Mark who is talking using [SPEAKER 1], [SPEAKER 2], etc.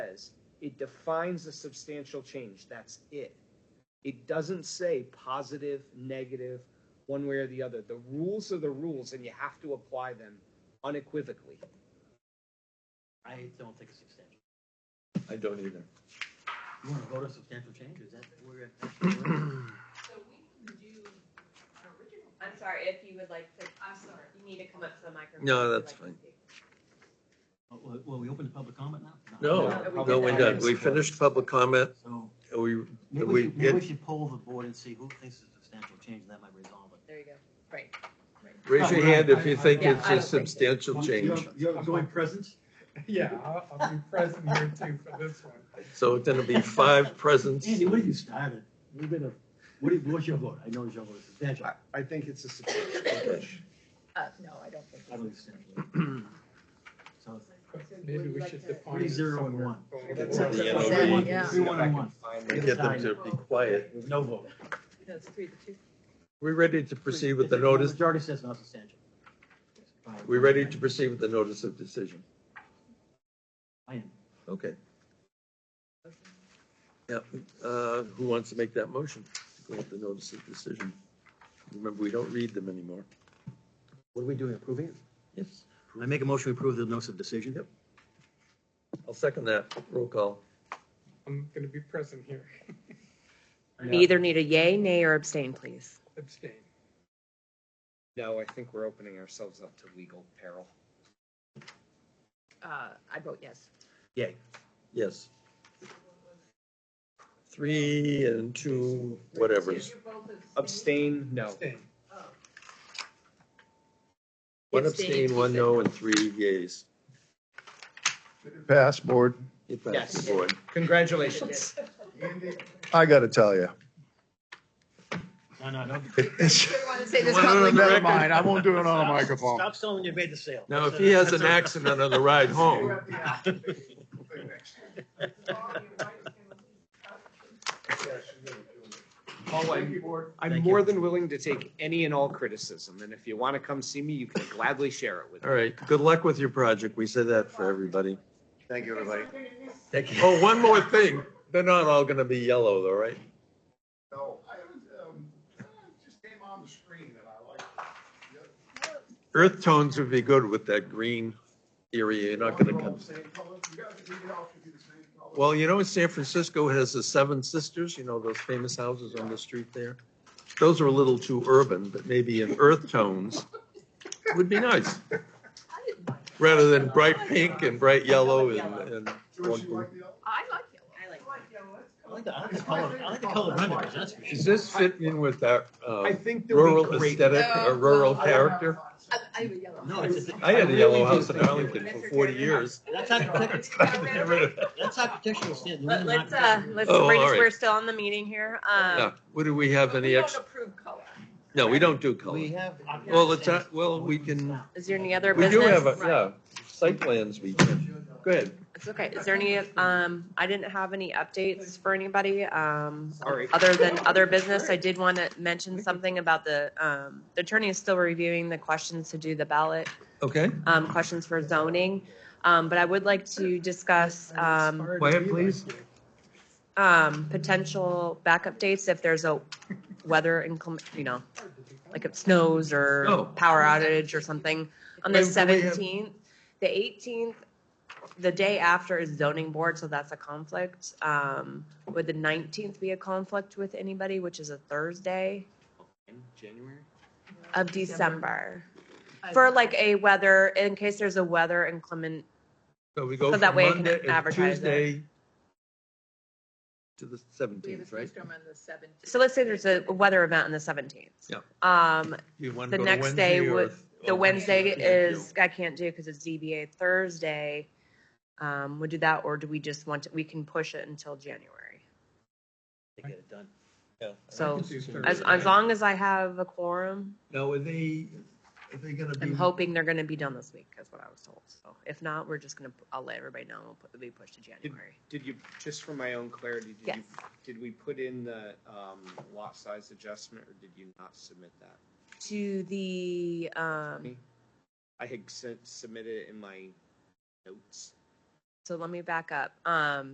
[SPEAKER 1] It defines a substantial change. That's it. It doesn't say positive, negative, one way or the other. The rules are the rules, and you have to apply them unequivocally.
[SPEAKER 2] I don't think it's substantial.
[SPEAKER 3] I don't either.
[SPEAKER 2] You wanna vote on substantial change, is that, we're, gonna-
[SPEAKER 4] So we can do an original.
[SPEAKER 5] I'm sorry, if you would like to,
[SPEAKER 4] I'm sorry.
[SPEAKER 5] you need to come up to the microphone.
[SPEAKER 3] No,
[SPEAKER 5] if you'd
[SPEAKER 3] that's
[SPEAKER 5] like to
[SPEAKER 3] fine.
[SPEAKER 5] speak.
[SPEAKER 2] well, well, we open the public comment now?
[SPEAKER 3] No, no, we didn't. We finished public comment.
[SPEAKER 2] So,
[SPEAKER 3] We,
[SPEAKER 2] maybe
[SPEAKER 3] We
[SPEAKER 2] we, should- maybe we
[SPEAKER 3] did-
[SPEAKER 2] should poll the board and see who thinks it's a substantial change, that might resolve it.
[SPEAKER 5] There you go. Right.
[SPEAKER 3] raise your hand if you think it's
[SPEAKER 5] Uh-huh. Yeah, I
[SPEAKER 3] a
[SPEAKER 5] don't think-
[SPEAKER 3] substantial change.
[SPEAKER 2] I'm going present?
[SPEAKER 6] Yeah, I'll, I'll be present here too for this one.
[SPEAKER 3] So it's gonna be five presents.
[SPEAKER 2] Andy, what have you started? We've been a, what do you, what's your vote? I know it's your vote, is substantial, I
[SPEAKER 1] I think it's a substantial change.
[SPEAKER 5] Uh, no, I don't think.
[SPEAKER 2] don't think it's substantial. So,
[SPEAKER 6] Maybe we should define
[SPEAKER 2] three,
[SPEAKER 6] it
[SPEAKER 2] zero, and
[SPEAKER 6] somewhere.
[SPEAKER 2] one.
[SPEAKER 1] That's
[SPEAKER 3] it. Yeah,
[SPEAKER 2] Three,
[SPEAKER 3] okay.
[SPEAKER 2] one,
[SPEAKER 5] Yeah.
[SPEAKER 2] Three, one, and one.
[SPEAKER 3] Get them to be quiet.
[SPEAKER 2] With No vote.
[SPEAKER 5] That's three to two.
[SPEAKER 3] We ready to proceed with the
[SPEAKER 2] If
[SPEAKER 3] notice?
[SPEAKER 2] Majority says not substantial.
[SPEAKER 3] We ready to proceed with the notice of decision?
[SPEAKER 2] I am.
[SPEAKER 3] Okay. Yeah, uh, who wants to make that motion? Go with the notice of decision. Remember, we don't read them anymore.
[SPEAKER 2] What are we doing, approving it?
[SPEAKER 3] Yes.
[SPEAKER 2] I make a motion to approve the notice of decision.
[SPEAKER 3] Yep. I'll second that. Roll call.
[SPEAKER 6] I'm gonna be present here,
[SPEAKER 5] We either need a yay, nay, or abstain, please.
[SPEAKER 6] abstain.
[SPEAKER 1] No, I think we're opening ourselves up to legal peril.
[SPEAKER 5] Uh, I vote yes.
[SPEAKER 2] Yay.
[SPEAKER 3] Yes. Three and two, whatever.
[SPEAKER 4] You're both abstaining?
[SPEAKER 1] Abstain, no.
[SPEAKER 6] Abstain.
[SPEAKER 4] Oh,
[SPEAKER 3] One abstain, one no, and three yays.
[SPEAKER 7] Pass, board.
[SPEAKER 3] It passes the board.
[SPEAKER 1] Congratulations.
[SPEAKER 7] I got to tell you.
[SPEAKER 2] No, no, no.
[SPEAKER 5] Say this
[SPEAKER 3] One on the
[SPEAKER 7] Never
[SPEAKER 3] record.
[SPEAKER 7] mind. I won't do it on a
[SPEAKER 2] Stop-
[SPEAKER 7] microphone.
[SPEAKER 2] Stop selling you made the sale.
[SPEAKER 3] Now, if he has an accident on the ride home,
[SPEAKER 4] oh, you're right, it's gonna be-
[SPEAKER 1] Paul, I'm, I'm more than willing to take any and all criticism, and if you want to come see me, you can gladly share it with
[SPEAKER 3] all
[SPEAKER 1] me.
[SPEAKER 3] right, good luck with your project. We say that for everybody.
[SPEAKER 7] Thank you, everybody.
[SPEAKER 3] Thank you. Oh, one more thing. They're not all gonna be yellow though, right?
[SPEAKER 7] No, I was, um, just came on the screen that I like.
[SPEAKER 3] Earth tones would be good with that green area. You're not gonna come. Well, you know, San Francisco has the Seven Sisters, you know, those famous houses on the street there. Those are a little too urban, but maybe in earth tones would be nice. Rather than bright pink and bright yellow and, and.
[SPEAKER 5] I like yellow. I
[SPEAKER 4] I like yellow, that's
[SPEAKER 2] I
[SPEAKER 4] cool.
[SPEAKER 2] like the, I like the color, I like the color renders, that's for
[SPEAKER 3] Does
[SPEAKER 2] sure.
[SPEAKER 3] this fit in with that, uh,
[SPEAKER 1] I think they'll be
[SPEAKER 3] rural
[SPEAKER 1] great.
[SPEAKER 3] aesthetic or rural
[SPEAKER 5] No.
[SPEAKER 3] character?
[SPEAKER 5] I have a yellow.
[SPEAKER 2] No, it's a,
[SPEAKER 3] I had a yellow house in Arlington for forty years.
[SPEAKER 2] that's architect-
[SPEAKER 3] Get rid of it.
[SPEAKER 2] that's architectural standard.
[SPEAKER 5] Let- Let's, uh, let's,
[SPEAKER 3] Oh,
[SPEAKER 5] we're
[SPEAKER 3] all
[SPEAKER 5] just,
[SPEAKER 3] right.
[SPEAKER 5] we're still on the meeting here. Um,
[SPEAKER 3] Yeah. What do we have
[SPEAKER 5] but
[SPEAKER 3] any
[SPEAKER 5] we
[SPEAKER 3] ex,
[SPEAKER 5] don't approve color.
[SPEAKER 3] no, we don't do color.
[SPEAKER 2] We have.
[SPEAKER 3] Well, it's, uh, well, we can,
[SPEAKER 5] Is there any other
[SPEAKER 3] we do
[SPEAKER 5] business?
[SPEAKER 3] have, a yeah, site plans we can, go ahead.
[SPEAKER 5] It's okay. Is there any, um, I didn't have any updates for anybody, um,
[SPEAKER 1] All right.
[SPEAKER 5] other than other business. I did want to mention something about the, um, the attorney is still reviewing the questions to do the ballot,
[SPEAKER 3] Okay,
[SPEAKER 5] um, questions for zoning. Um, but I would like to discuss, um,
[SPEAKER 3] quiet please.
[SPEAKER 5] um, potential backup dates if there's a weather inclement, you know, like it snows
[SPEAKER 3] Oh.
[SPEAKER 5] or power outage or something. On
[SPEAKER 3] Wait, do we
[SPEAKER 5] the
[SPEAKER 3] have-
[SPEAKER 5] seventeenth, the eighteenth, the day after is zoning board, so that's a conflict. Um, would the nineteenth be a conflict with anybody, which is a Thursday
[SPEAKER 1] In January?
[SPEAKER 5] of December? For like a weather, in case there's a weather inclement,
[SPEAKER 3] So we go
[SPEAKER 5] So
[SPEAKER 3] from
[SPEAKER 5] that way I can
[SPEAKER 3] Monday, uh,
[SPEAKER 5] advertise it.
[SPEAKER 3] Tuesday to the
[SPEAKER 8] We have a
[SPEAKER 3] seventeenth, right?
[SPEAKER 8] snowstorm on the seventeenth.
[SPEAKER 5] so let's say there's a weather event on the seventeenth.
[SPEAKER 3] Yeah.
[SPEAKER 5] Um,
[SPEAKER 3] You wanna
[SPEAKER 5] The
[SPEAKER 3] go to
[SPEAKER 5] next day
[SPEAKER 3] Wednesday or- oh,
[SPEAKER 5] would- the
[SPEAKER 3] or
[SPEAKER 5] Wednesday
[SPEAKER 3] you can't do?
[SPEAKER 5] is, I can't do because it's ZBA Thursday. Um, would do that, or do we just want to, we can push it until January?
[SPEAKER 2] To get it done.
[SPEAKER 3] Yeah.
[SPEAKER 5] So,
[SPEAKER 6] Let's do Thursday.
[SPEAKER 5] As, as long as I have a quorum,
[SPEAKER 3] Now, are they, are they gonna be?
[SPEAKER 5] I'm hoping they're gonna be done this week, is what I was told. So if not, we're just gonna, I'll let everybody know, we'll put, be pushed to January.
[SPEAKER 1] Did you, just for my own clarity, did you,
[SPEAKER 5] Yes.
[SPEAKER 1] did we put in the, um, lot size adjustment, or did you not submit that?
[SPEAKER 5] To the, um,
[SPEAKER 1] Me? I had sent, submitted it in my notes.
[SPEAKER 5] so let me back up. Um,